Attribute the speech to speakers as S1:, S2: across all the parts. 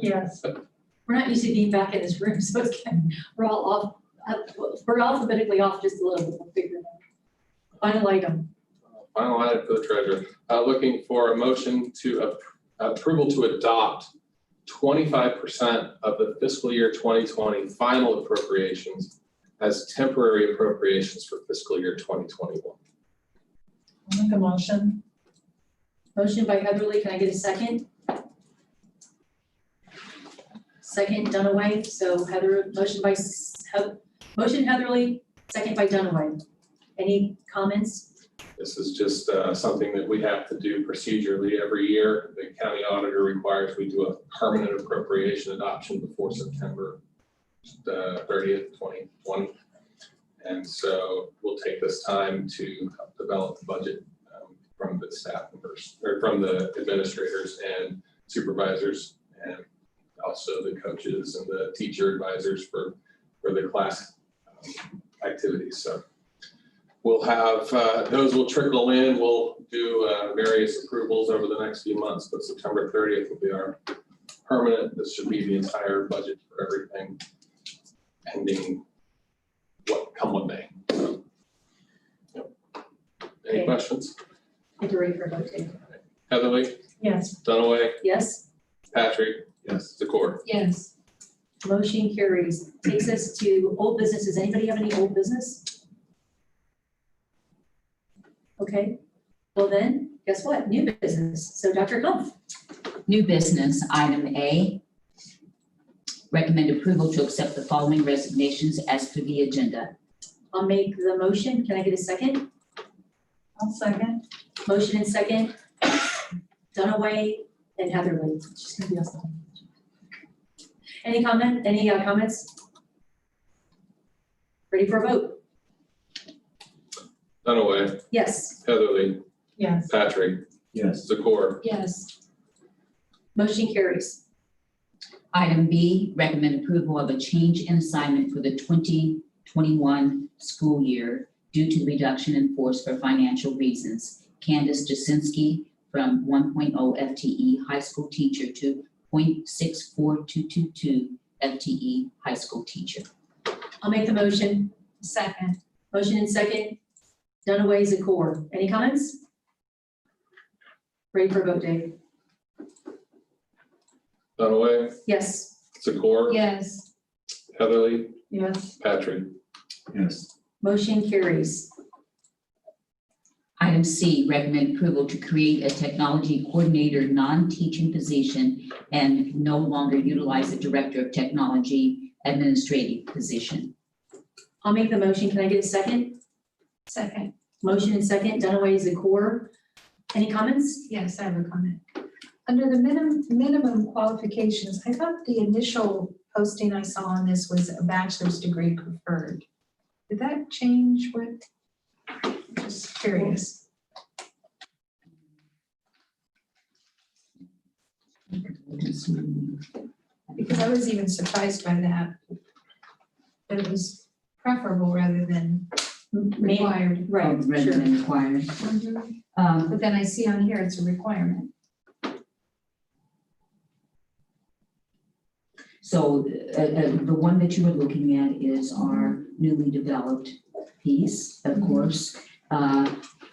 S1: Yes. We're not used to being back in this room, so it's kind, we're all off, uh, we're alphabetically off just a little bit, we'll figure it out. Final item,
S2: Final item for the treasurer, uh, looking for a motion to ap- approval to adopt twenty-five percent of the fiscal year twenty twenty final appropriations as temporary appropriations for fiscal year twenty twenty-one.
S3: I'll make a motion.
S1: motion by Heatherly, can I get a second? Second Dunaway, so Heather, motion by, S- Heath- motion Heatherly, second by Dunaway. Any comments?
S2: This is just, uh, something that we have to do procedurally every year. The county auditor requires we do a permanent appropriation adoption before September uh, thirtieth, twenty twenty. And so we'll take this time to help develop the budget um, from the staff members, or from the administrators and supervisors, and also the coaches and the teacher advisors for, for the class um, activities. So We'll have, uh, those will trickle in. We'll do uh, various approvals over the next few months, but September 30th will be our permanent. This should be the entire budget for everything ending what, come what may. So, yep. Any
S1: Okay.
S2: questions?
S1: Heatherly for vote, Dave.
S2: Heatherly,
S3: Yes.
S2: Dunaway,
S1: yes?
S2: Patrick,
S4: Yes.
S2: Zakor.
S1: Yes. Motion carries, takes us to old business, does anybody have any old business? Okay, well then, guess what, new business, so Dr. Humph,
S5: New business, item A. Recommend approval to accept the following resignations as per the agenda.
S1: I'll make the motion, can I get a second?
S3: I'll second.
S1: Motion and second, Dunaway and Heatherly. She's gonna be awesome. Any comment, any uh, comments? Ready for a vote?
S2: Dunaway,
S1: Yes.
S2: Heatherly,
S3: Yes.
S2: Patrick,
S4: Yes.
S2: Zakor.
S1: Yes. Motion carries.
S5: Item B, recommend approval of a change in assignment for the 2021 school year due to reduction in force for financial reasons. Candace Jasinski from 1.0 FTE E high school teacher to 0.64222 FTE E high school teacher.
S1: I'll make the motion. Second. Motion and second. Dunaway, Zakor. Any comments? Ready for a vote, Dave?
S2: Dunaway,
S1: Yes.
S2: Zakor.
S1: Yes.
S2: Heatherly,
S3: Yes.
S2: Patrick.
S4: Yes.
S1: Motion carries.
S5: Item C, recommend approval to create a technology coordinator, non-teaching position, and no longer utilize the director of technology administrative position.
S1: I'll make the motion. Can I get a second?
S6: Second,
S1: Motion and second. Dunaway, Zakor. Any comments?
S6: yes, I have a comment. Under the minimum, minimum qualifications, I thought the initial posting I saw on this was a bachelor's degree preferred. Did that change what? Just curious. Because I was even surprised by that. That it was preferable rather than
S1: Ma-
S6: required.
S1: Right,
S5: Rather
S1: sure.
S5: than required. Um,
S6: But then I see on here it's a requirement.
S5: So uh, uh, the one that you were looking at is our newly developed piece, of course. Uh,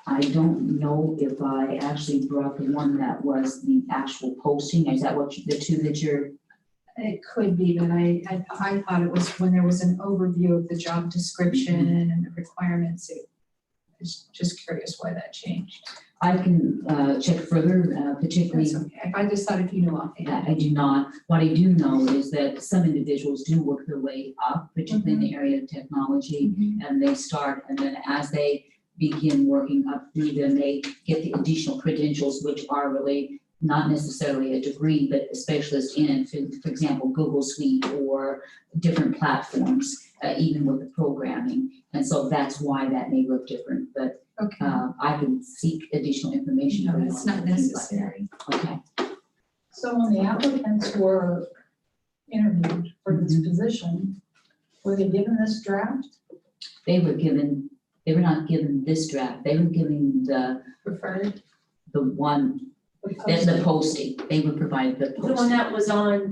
S5: I don't know if I actually brought the one that was the actual posting. Is that what, you- the two that you're
S6: It could be, but I, I, I thought it was when there was an overview of the job description and the requirements. It- I was just curious why that changed.
S5: I can uh, check further, uh, particularly,
S6: That's okay. I just thought if you knew offhand.
S5: I I do not, what I do know is that some individuals do work their way up, particularly in the area of technology,
S6: Mm-hmm.
S5: and they start, and then as they begin working up through them, they get the additional credentials, which are really not necessarily a degree, but a specialist in, for for example, Google Suite or different platforms, uh, even with the programming. And so that's why that may look different, but
S6: Okay,
S5: uh, I can seek additional information.
S6: Um, no,
S5: around
S6: it's not
S5: things like that.
S6: necessary.
S5: Okay,
S3: So when the applicants were interviewed for this
S6: Mm-hmm.
S3: position, were they given this draft?
S5: they were given, they were not given this draft, they were given the,
S6: Preferred.
S5: the one, the the posting, they were provided the
S1: The one
S5: posting.
S1: that was on